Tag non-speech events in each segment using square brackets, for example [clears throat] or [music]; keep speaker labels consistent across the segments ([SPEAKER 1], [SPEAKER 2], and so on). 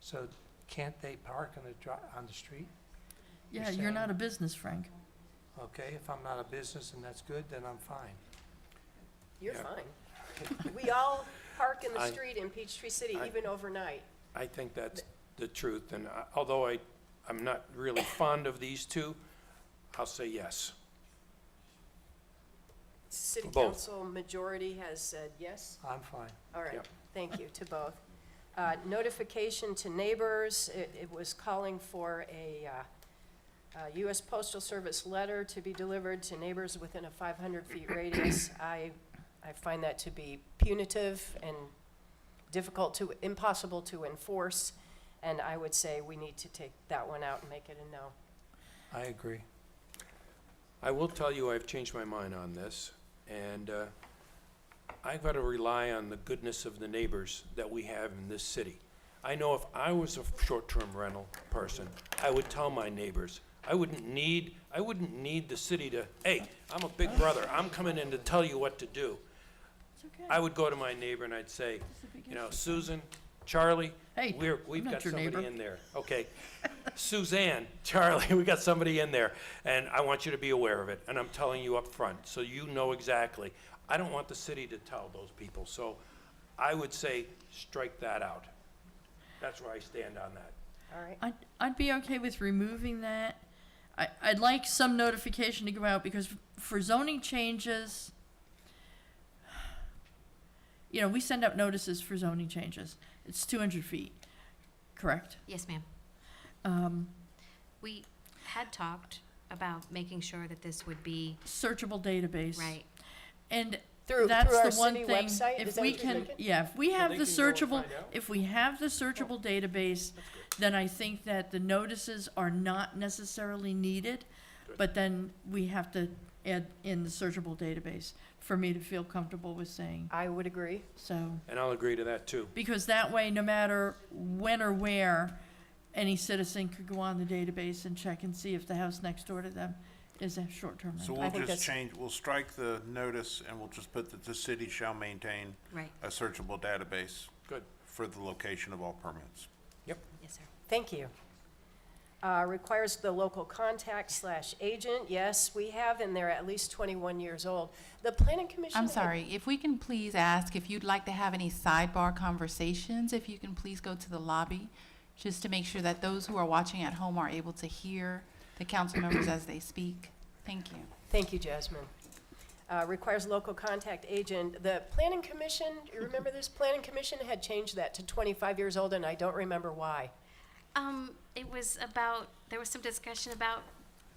[SPEAKER 1] So can't they park on the dri- on the street?
[SPEAKER 2] Yeah, you're not a business, Frank.
[SPEAKER 1] Okay, if I'm not a business and that's good, then I'm fine.
[SPEAKER 3] You're
[SPEAKER 1] Yeah.
[SPEAKER 3] fine.
[SPEAKER 1] [laughs]
[SPEAKER 3] We all park in the
[SPEAKER 1] I-
[SPEAKER 3] street in Peachtree City,
[SPEAKER 1] I-
[SPEAKER 3] even overnight.
[SPEAKER 1] I think that's the truth, and I- although I, I'm not really fond of these two, I'll say yes.
[SPEAKER 3] City
[SPEAKER 1] For both.
[SPEAKER 3] council majority has said yes.
[SPEAKER 1] I'm fine.
[SPEAKER 3] All right,
[SPEAKER 1] Yep.
[SPEAKER 3] thank you to both. Uh, Notification to neighbors, it it was calling for a uh, uh, U.S. Postal Service letter to be delivered to neighbors within a 500-feet
[SPEAKER 1] [clears throat]
[SPEAKER 3] radius. I, I find that to be punitive and difficult to, impossible to enforce, and I would say we need to take that one out and make it a no.
[SPEAKER 1] I agree. I will tell you, I've changed my mind on this, and uh, I've got to rely on the goodness of the neighbors that we have in this city. I know if I was a short-term rental person, I would tell my neighbors. I wouldn't need, I wouldn't need the city to, hey, I'm a big brother, I'm coming in to tell you what to do.
[SPEAKER 2] It's okay.
[SPEAKER 1] I would go to my neighbor and I'd say, you know, Susan, Charlie,
[SPEAKER 2] Hey,
[SPEAKER 1] we're,
[SPEAKER 2] I'm
[SPEAKER 1] we've
[SPEAKER 2] not
[SPEAKER 1] got
[SPEAKER 2] your neighbor.
[SPEAKER 1] somebody in there. Okay. Suzanne, [laughs] Charlie, we got somebody in there, and I want you to be aware of it, and I'm telling you up front, so you know exactly. I don't want the city to tell those people, so I would say, strike that out. That's where I stand on that.
[SPEAKER 3] All right?
[SPEAKER 2] I'd, I'd be okay with removing that. I, I'd like some notification to go out because for zoning changes, you know, we send out notices for zoning changes. It's two hundred feet, correct?
[SPEAKER 4] Yes, ma'am.
[SPEAKER 2] Um,
[SPEAKER 4] We had talked about making sure that this would be
[SPEAKER 2] searchable database.
[SPEAKER 4] right.
[SPEAKER 2] And
[SPEAKER 3] Through,
[SPEAKER 2] that's
[SPEAKER 3] through our
[SPEAKER 2] the one
[SPEAKER 3] city
[SPEAKER 2] thing.
[SPEAKER 3] website, is
[SPEAKER 2] if
[SPEAKER 3] that
[SPEAKER 2] we
[SPEAKER 3] what you're
[SPEAKER 2] can,
[SPEAKER 3] thinking?
[SPEAKER 2] yeah, if we have
[SPEAKER 1] they
[SPEAKER 2] the
[SPEAKER 1] can go and
[SPEAKER 2] searchable,
[SPEAKER 1] find out.
[SPEAKER 2] if we have the searchable database, then I think that the notices are not necessarily needed.
[SPEAKER 1] Good.
[SPEAKER 2] But then we have to add in the searchable database for me to feel comfortable with saying
[SPEAKER 3] I would agree.
[SPEAKER 2] so.
[SPEAKER 1] And I'll agree to that, too.
[SPEAKER 2] Because that way, no matter when or where, any citizen could go on the database and check and see if the house next door to them is a short-term
[SPEAKER 5] So
[SPEAKER 2] rental.
[SPEAKER 3] I
[SPEAKER 5] we'll
[SPEAKER 3] think
[SPEAKER 5] just
[SPEAKER 3] that's-
[SPEAKER 5] change, we'll strike the notice and we'll just put that the city shall maintain
[SPEAKER 4] Right.
[SPEAKER 5] a searchable database
[SPEAKER 1] Good.
[SPEAKER 5] for the location of all permits.
[SPEAKER 4] Yes, sir.
[SPEAKER 3] Thank you. Uh, Requires the local contact slash agent, yes, we have, and they're at least 21 years old. The planning commission.
[SPEAKER 6] I'm sorry, if we can please ask if you'd like to have any sidebar conversations, if you can please go to the lobby, just to make sure that those who are watching at home are able to hear the council members as they speak. Thank you.
[SPEAKER 3] Thank you, Jasmine. Uh, Requires local contact agent. The planning commission, you remember this? Planning commission had changed that to 25 years old, and I don't remember why.
[SPEAKER 4] Um, it was about, there was some discussion about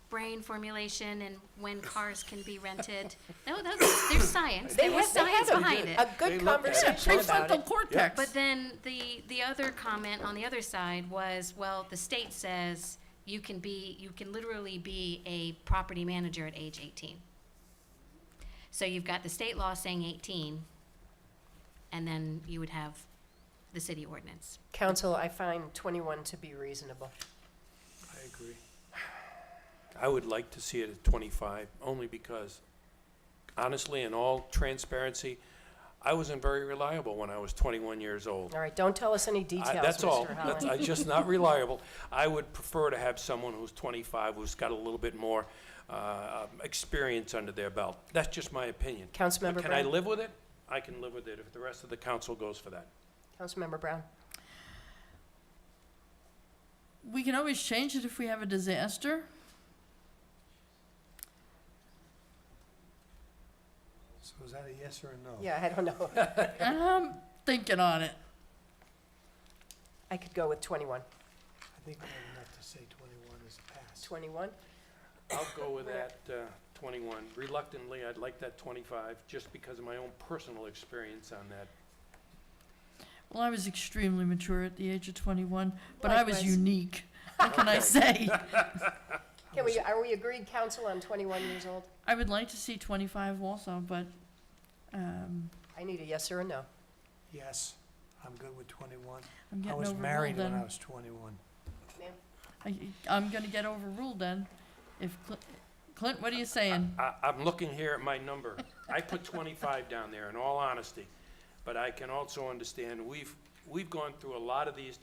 [SPEAKER 4] brain formulation and when cars can be
[SPEAKER 3] [laughs]
[SPEAKER 4] rented. No, that's, there's science. There was
[SPEAKER 3] had- they had
[SPEAKER 4] science
[SPEAKER 3] a-
[SPEAKER 4] behind it.
[SPEAKER 3] A
[SPEAKER 1] They
[SPEAKER 3] good
[SPEAKER 1] looked at it.
[SPEAKER 3] conversation about
[SPEAKER 2] Prefrontal
[SPEAKER 3] it.
[SPEAKER 2] cortex.
[SPEAKER 4] But then the, the other comment on the other side was, well, the state says you can be, you can literally be a property manager at age eighteen. So you've got the state law saying eighteen, and then you would have the city ordinance.
[SPEAKER 3] Council, I find 21 to be reasonable.
[SPEAKER 1] I agree. I would like to see it at 25, only because honestly, in all transparency, I wasn't very reliable when I was 21 years old.
[SPEAKER 3] All right, don't tell us any
[SPEAKER 1] I-
[SPEAKER 3] details,
[SPEAKER 1] That's all.
[SPEAKER 3] Mr.
[SPEAKER 1] That's-
[SPEAKER 3] Holland.
[SPEAKER 1] I'm just not reliable. I would prefer to have someone who's 25, who's got a little bit more uh, um, experience under their belt. That's just my opinion. But
[SPEAKER 3] Councilmember
[SPEAKER 1] Can I
[SPEAKER 3] Brown?
[SPEAKER 1] live with it? I can live with it if the rest of the council goes for that.
[SPEAKER 3] Councilmember Brown?
[SPEAKER 2] We can always change it if we have a disaster.
[SPEAKER 1] So is that a yes or a no?
[SPEAKER 3] Yeah, I don't know. [laughs]
[SPEAKER 2] I'm thinking on it.
[SPEAKER 3] I could go with 21.
[SPEAKER 1] I think we have enough to say 21 is a pass.
[SPEAKER 3] 21?
[SPEAKER 1] I'll go with that uh, 21. Reluctantly, I'd like that 25, just because of my own personal experience on that.
[SPEAKER 2] Well, I was extremely mature at the age of 21, but I was
[SPEAKER 3] Likewise.
[SPEAKER 2] unique. What can I
[SPEAKER 1] Okay.
[SPEAKER 2] say?
[SPEAKER 3] Can we, are we agreed, council, on 21 years old?
[SPEAKER 2] I would like to see 25 also, but um,
[SPEAKER 3] I need a yes or a no.
[SPEAKER 7] Yes, I'm good with twenty-one.
[SPEAKER 2] I'm
[SPEAKER 7] I
[SPEAKER 2] getting
[SPEAKER 7] was
[SPEAKER 2] overruled
[SPEAKER 7] married when I
[SPEAKER 2] then.
[SPEAKER 7] was twenty-one.
[SPEAKER 2] I, I'm going to get overruled then. If Cl- Clint, what are you saying?
[SPEAKER 1] I, I'm looking here at my number. I put 25 down there, in all honesty. But I can also understand, we've, we've gone through a lot of these